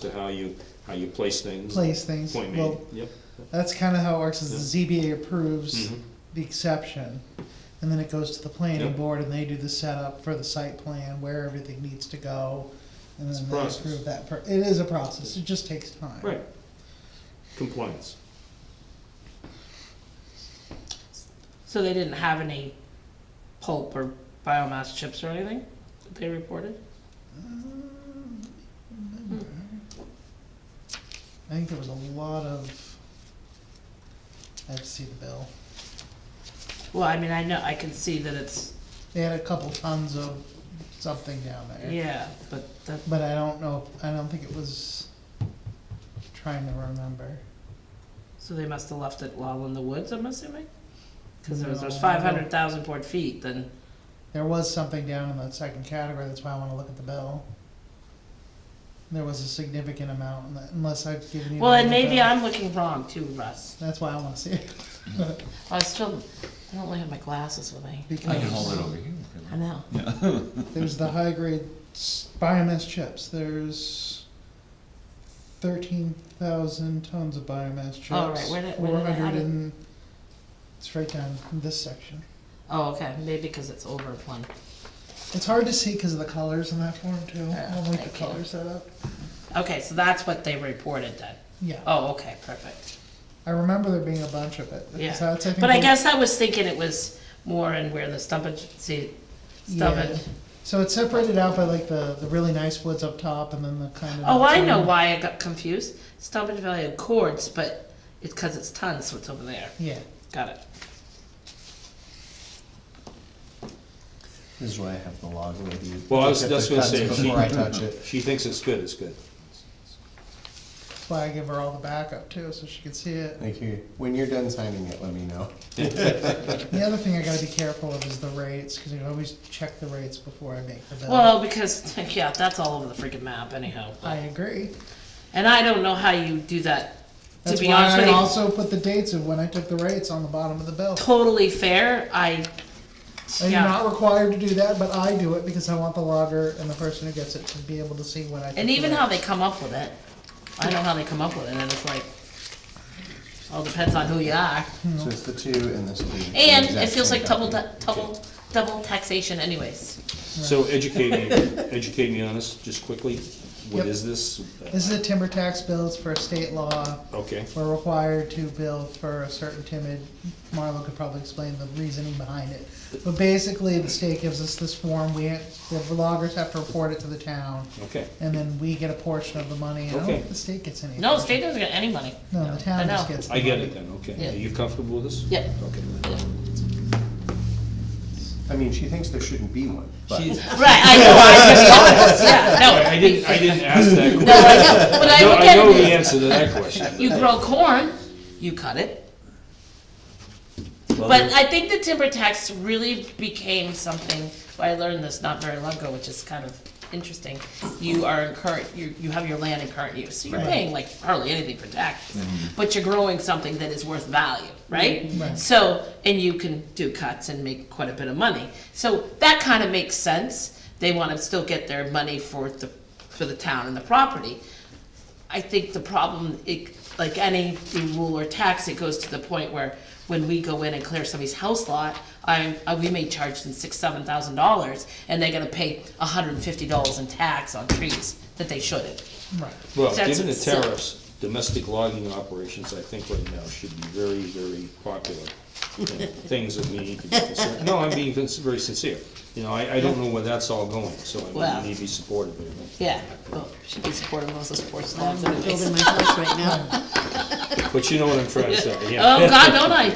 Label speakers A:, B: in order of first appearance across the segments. A: to how you, how you place things.
B: place things.
A: Point made,
B: Well,
A: yep.
B: that's kind of how it works, is the ZBA
A: Mm-hmm.
B: approves the exception, and then it goes to the planning
A: Yep.
B: board, and they do the setup for the site plan, where everything needs to go, and
A: It's a
B: then they
A: process.
B: approve that. per- It is a process, it just takes time.
A: Right. Compliance.
C: So they didn't have any pulp or biomass chips or anything that they reported?
B: Um, remember. I think there was a lot of, I have to see the bill.
C: Well, I mean, I know, I can see that it's,
B: They had a couple tons of something down there.
C: yeah, but that,
B: But I don't know, I don't think it was trying to remember.
C: so they must have left it all in the woods, I'm assuming? Cause there was, there's
B: No.
C: five hundred thousand board feet, then,
B: There was something down in that second category, that's why I wanna look at the bill. There was a significant amount, in that- unless I've given you.
C: well,
B: the
C: and
B: wrong
C: maybe
B: bill.
C: I'm looking wrong too, Russ.
B: That's why I wanna see it,
C: I still, I don't really have my glasses with me.
D: I can hold
B: because
D: it over here.
C: I know.
B: there's the high grade s- biomass chips, there's thirteen thousand tons of biomass chips.
C: Oh, right, where did- where did I have
B: Four hundred
C: it?
B: and, it's right down in this section.
C: Oh, okay, maybe because it's over one.
B: It's hard to see because of the colors in that form too, I
C: Yeah,
B: don't like
C: thank
B: the
C: you.
B: color setup.
C: Okay, so that's what they reported then.
B: Yeah,
C: Oh, okay, perfect.
B: I remember there being a bunch of it.
C: Yeah.
B: So that's, think,
C: But I
B: the-
C: guess I was thinking it was more in where the stumpage, see,
B: Yeah.
C: stumpage.
B: So it's separated out by like the, the really nice woods up top and then the kind of.
C: Oh, I know why I got confused. Stumpage Valley of Cords, but it's because it's tons, so it's over there.
B: Yeah,
C: Got it.
D: This is why I have the log with you.
A: Well, I was- that's what I was saying.
D: Before I touch it.
A: She thinks it's good, it's good.
B: that's why I give her all the backup too, so she can see it.
D: Thank you. When you're done signing it, let me know.
B: The other thing I gotta be careful of is the rates, cause you always check the rates before I make the bill.
C: Well, because, yeah, that's all over the freaking map anyhow.
B: I agree.
C: And I don't know how you do that, to
B: That's
C: be
B: why
C: honest
B: I
C: with you.
B: also put the dates of when I took the rates on the bottom of the bill.
C: Totally fair, I,
B: And you're
C: yeah.
B: not required to do that, but I do it because I want the logger and the person who gets it to be able to see when I. took
C: And
B: the
C: even how
B: rates.
C: they come up with it, I know how they come up with it, and it's like, all depends on who you are.
B: Hmm.
D: So it's the two and this will be. the
C: And it
D: exact
C: feels
D: same
C: like double,
D: copy.
C: ta- double, double taxation anyways.
A: So educate me, educate me on this, just quickly. What
B: Yep.
A: is this? Uh,
B: This is a timber tax bill, it's for a state law.
A: Okay,
B: We're required to bill for a certain timid, Marlo could probably explain the reasoning behind it. But basically, the state gives us this form, we, the loggers have to report it to the town,
A: okay.
B: and then we get a portion of the money, and I don't
A: Okay.
B: think the state gets any.
C: No, the
B: portion.
C: state doesn't get any money.
B: No, the
C: I
B: town just
C: know.
B: gets the
A: I
B: money.
A: get it then, okay.
C: Yeah.
A: Are you comfortable with this?
C: Yeah.
A: Okay.
D: I mean, she thinks there shouldn't be one, but
A: She's-
C: Right, I know, I just, honest, yeah,
A: I I
C: no.
A: didn't, I didn't ask that question.
C: No, I know, but I
A: No,
C: look
A: I
C: at
A: know the
C: it,
A: answer to that question.
C: as, you grow corn, you cut it.
D: Well,
C: But I think the timber tax really became something, I learned this not very long ago, which is kind of interesting. You are in current, you, you have your land in current use, so you're
B: Right.
C: paying like hardly anything for taxes.
A: Mm-hmm.
C: But you're growing something that is worth value, right?
B: Right.
C: So, and you can do cuts and make quite a bit of money. So that kind of makes sense. They want to still get their money for the, for the town and the property. I think the problem, it, like any rule or tax, it goes to the point where when we go in and clear somebody's house lot, I, I- we may charge them six, seven thousand dollars, and they're gonna pay hundred and fifty dollars in tax on trees that they shouldn't.
B: Right,
A: Well,
C: That's
A: given the
C: what's silly.
A: tariffs, domestic logging operations, I think right now should be very, very popular. you know, Things that we need to be concerned, no, I'm being vis- very sincere. You know, I, I don't know where that's all going, so I mean,
C: Well.
A: we need to be supportive of it.
C: Yeah, well, should be supporting those sports laws
E: I'm
C: anyways.
E: building my house right now.
A: But you know what I'm trying to say, yeah.
C: Oh, God, don't I,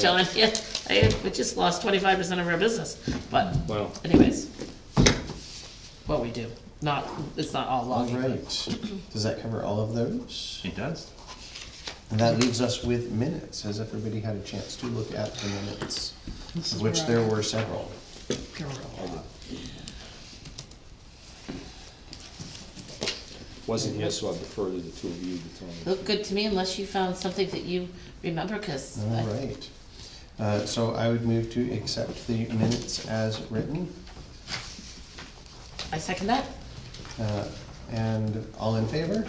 C: John, yeah, I, we just lost twenty-five percent of our business, but
A: Well,
C: anyways. What we do, not, it's not all
D: All
C: logging. but-
D: right. Does that cover all of those?
F: It does.
D: And that leaves us with minutes. Has everybody had a chance to look at the minutes?
B: This is
D: Of which
B: where I-
D: there were several.
A: wasn't here, so I defer to the two of you to tell me.
C: Looked good to me unless you found something that you remember, cause.
D: All
C: I-
D: right. Uh, So I would move to accept the minutes as written.
C: I second that.
D: Uh, And all in favor?